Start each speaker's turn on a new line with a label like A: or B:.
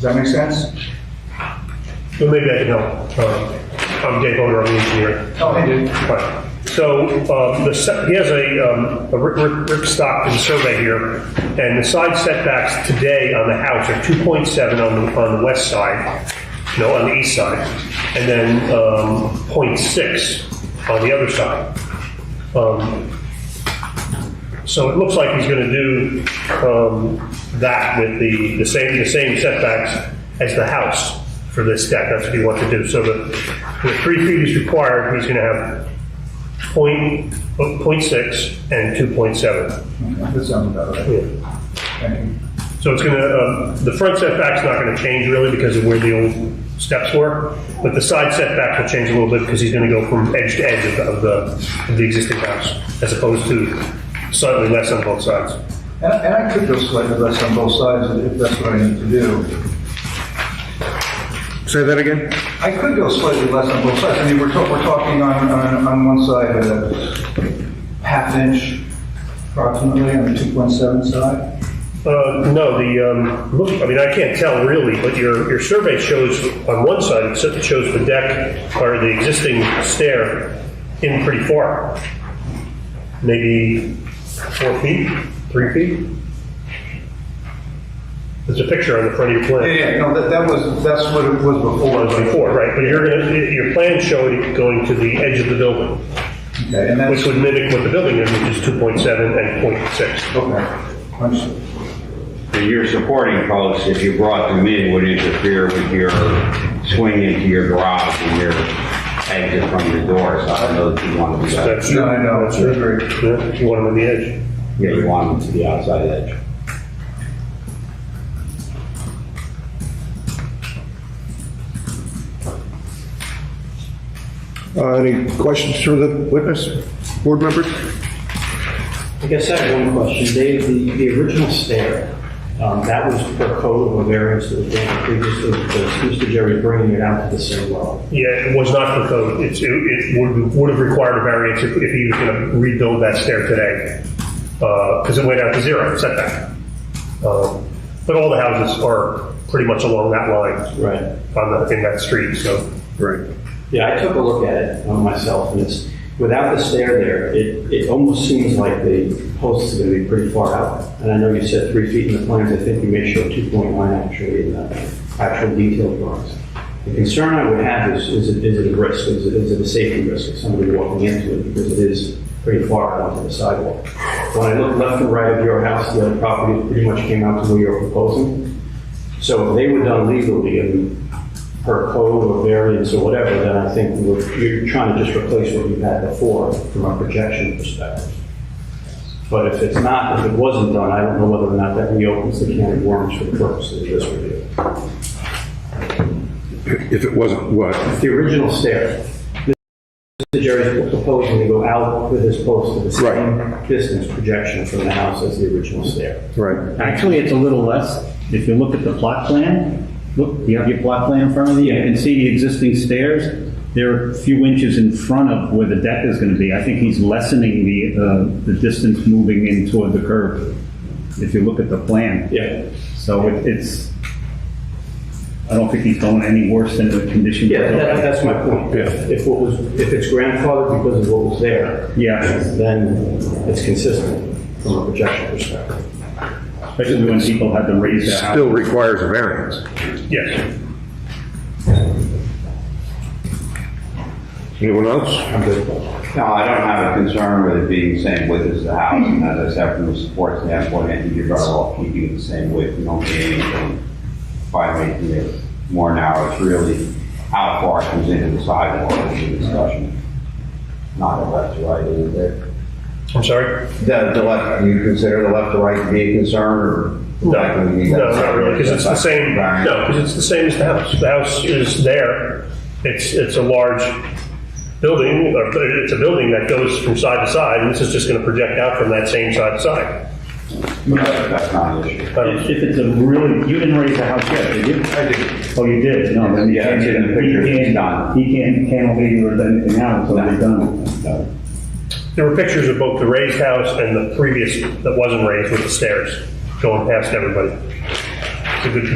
A: that make sense?
B: Well, maybe I can help. Um, I'm Dave Oder, I'm the engineer.
A: Oh, I do.
B: Right. So um, the, se- he has a, um, a Rick- Rick Rick Stockton survey here, and the side setbacks today on the house are 2.7 on the, on the west side, no, on the east side, and then um, .6 on the other side. Um, So it looks like he's going to do um, that with the, the same, the same setbacks as the house for this deck. That's what he wants to do. So the, the three feet is required, he's going to have point, point six and two point seven.
A: That sounds about right. Thank you.
B: So it's going to, the front setback's not going to change really because of where the old steps were, but the side setback will change a little bit because he's going to go from edge to edge of the- of the, of the existing house, as opposed to slightly less on both sides.
A: And, and I could go slightly less on both sides if that's what I need to do.
C: Say that again?
A: I could go slightly less on both sides. I mean, we're, talk- we're talking on, on, on one side, a half inch approximately on the 2.7 side.
B: Uh, No, the, um, look, I mean, I can't tell really, but your, your survey shows, on one side, it s- shows the deck or the existing stair in pretty far. Maybe four feet, three feet? There's a picture on the front of your
A: Yeah,
B: plan.
A: yeah, no, that, that was, that's what it was before.
B: Was before, right, but you're gonna, your plan showed it going to the edge of the building,
A: Okay, and that's,
B: which would mimic what the building is, which is 2.7 and .6.
A: okay, understood.
D: Your supporting posts, if you brought them in, would interfere with your swing into your garage and your exit from the door, so I don't know that you want to do that.
B: That's-
A: No, I know, I agree.
B: Yeah, you want them on the edge.
D: Yeah, you want them to the outside edge.
C: Uh, Any questions for the witness, board members?
E: I guess I have one question. Dave, the, the original stair, um, that was per code of a variance that was granted previously because Mr. Jerry bringing it out to the same level.
B: Yeah, it was not for code. It's, it, it would, would have required a variance if, if he was gonna rebuild that stair today. Uh 'cause cause it went out to zero setback. Um, but all the houses are pretty much along that line
E: Right.
B: on the, in that street, so.
C: Right.
E: Yeah, I took a look at it uh, myself and it's, without the stair there, it, it almost seems like the posts are gonna be pretty far out. And I know you said three feet in the plans. I think you may show two point one actually in the actual detailed drawings. The concern I would have is, is it, is it a risk? Is it, is it a safety risk of somebody walking into it? Because it is pretty far out onto the sidewalk. When I look left and right of your house, the other property pretty much came out to where you're proposing. So if they were done legally and per code or variance or whatever, then I think we we're, you're trying to just replace what you've had before from a projection perspective. But if it's not, if it wasn't done, I don't know whether or not that reopens the can of worms for the purpose of this review.
C: If it wasn't, what?
E: The original stair, Mr. Jerry's proposing to go out with his post to the same distance projection from the house as the original stair.
C: Right.
F: Actually, it's a little less. If you look at the plot plan, look, you have your plot plan in front of you, you can see the existing stairs. They're a few inches in front of where the deck is gonna be. I think he's lessening the, uh, the distance moving in toward the curb, if you look at the plan.
E: Yeah.
F: So it- it's, I don't think he's going any worse than the condition.
E: Yeah, that, that's my point.
C: Yeah.
E: If what was, if it's grandfathered because of what was there,
F: Yeah,
E: then it's consistent from a projection perspective.
F: especially when people had to raise their house.
C: Still requires a variance.
B: Yes.
C: Anyone else?
E: I'm good.
D: No, I don't have a concern with it being the same width as the house, and as I said, from the support standpoint, I think you're better off keeping it the same width, you don't gain anything by making it more narrow, it's really how far it comes into the sidewalk is the discussion, not the left to right, is it?
B: I'm sorry?
D: The, the left, do you consider the left to right to be a concern, or?
B: No, no, not really, because it's the same,
D: Right.
B: no, because it's the same as the house. The house is there. It's, it's a large building, or it's a building that goes from side to side, and this is just gonna project out from that same side to side.
D: That's not an issue.
B: I don't-
F: If if it's a really, you didn't raise the house yet, did you? I did. Oh, you did? No, then you
D: Yeah,
F: can't.
D: it's in the
F: he
D: picture.
F: can't-
D: It's done.
F: He can't cantilever or anything now until they're done.
B: There were pictures of both the raised house and the previous that wasn't raised with the stairs going past everybody. It's a good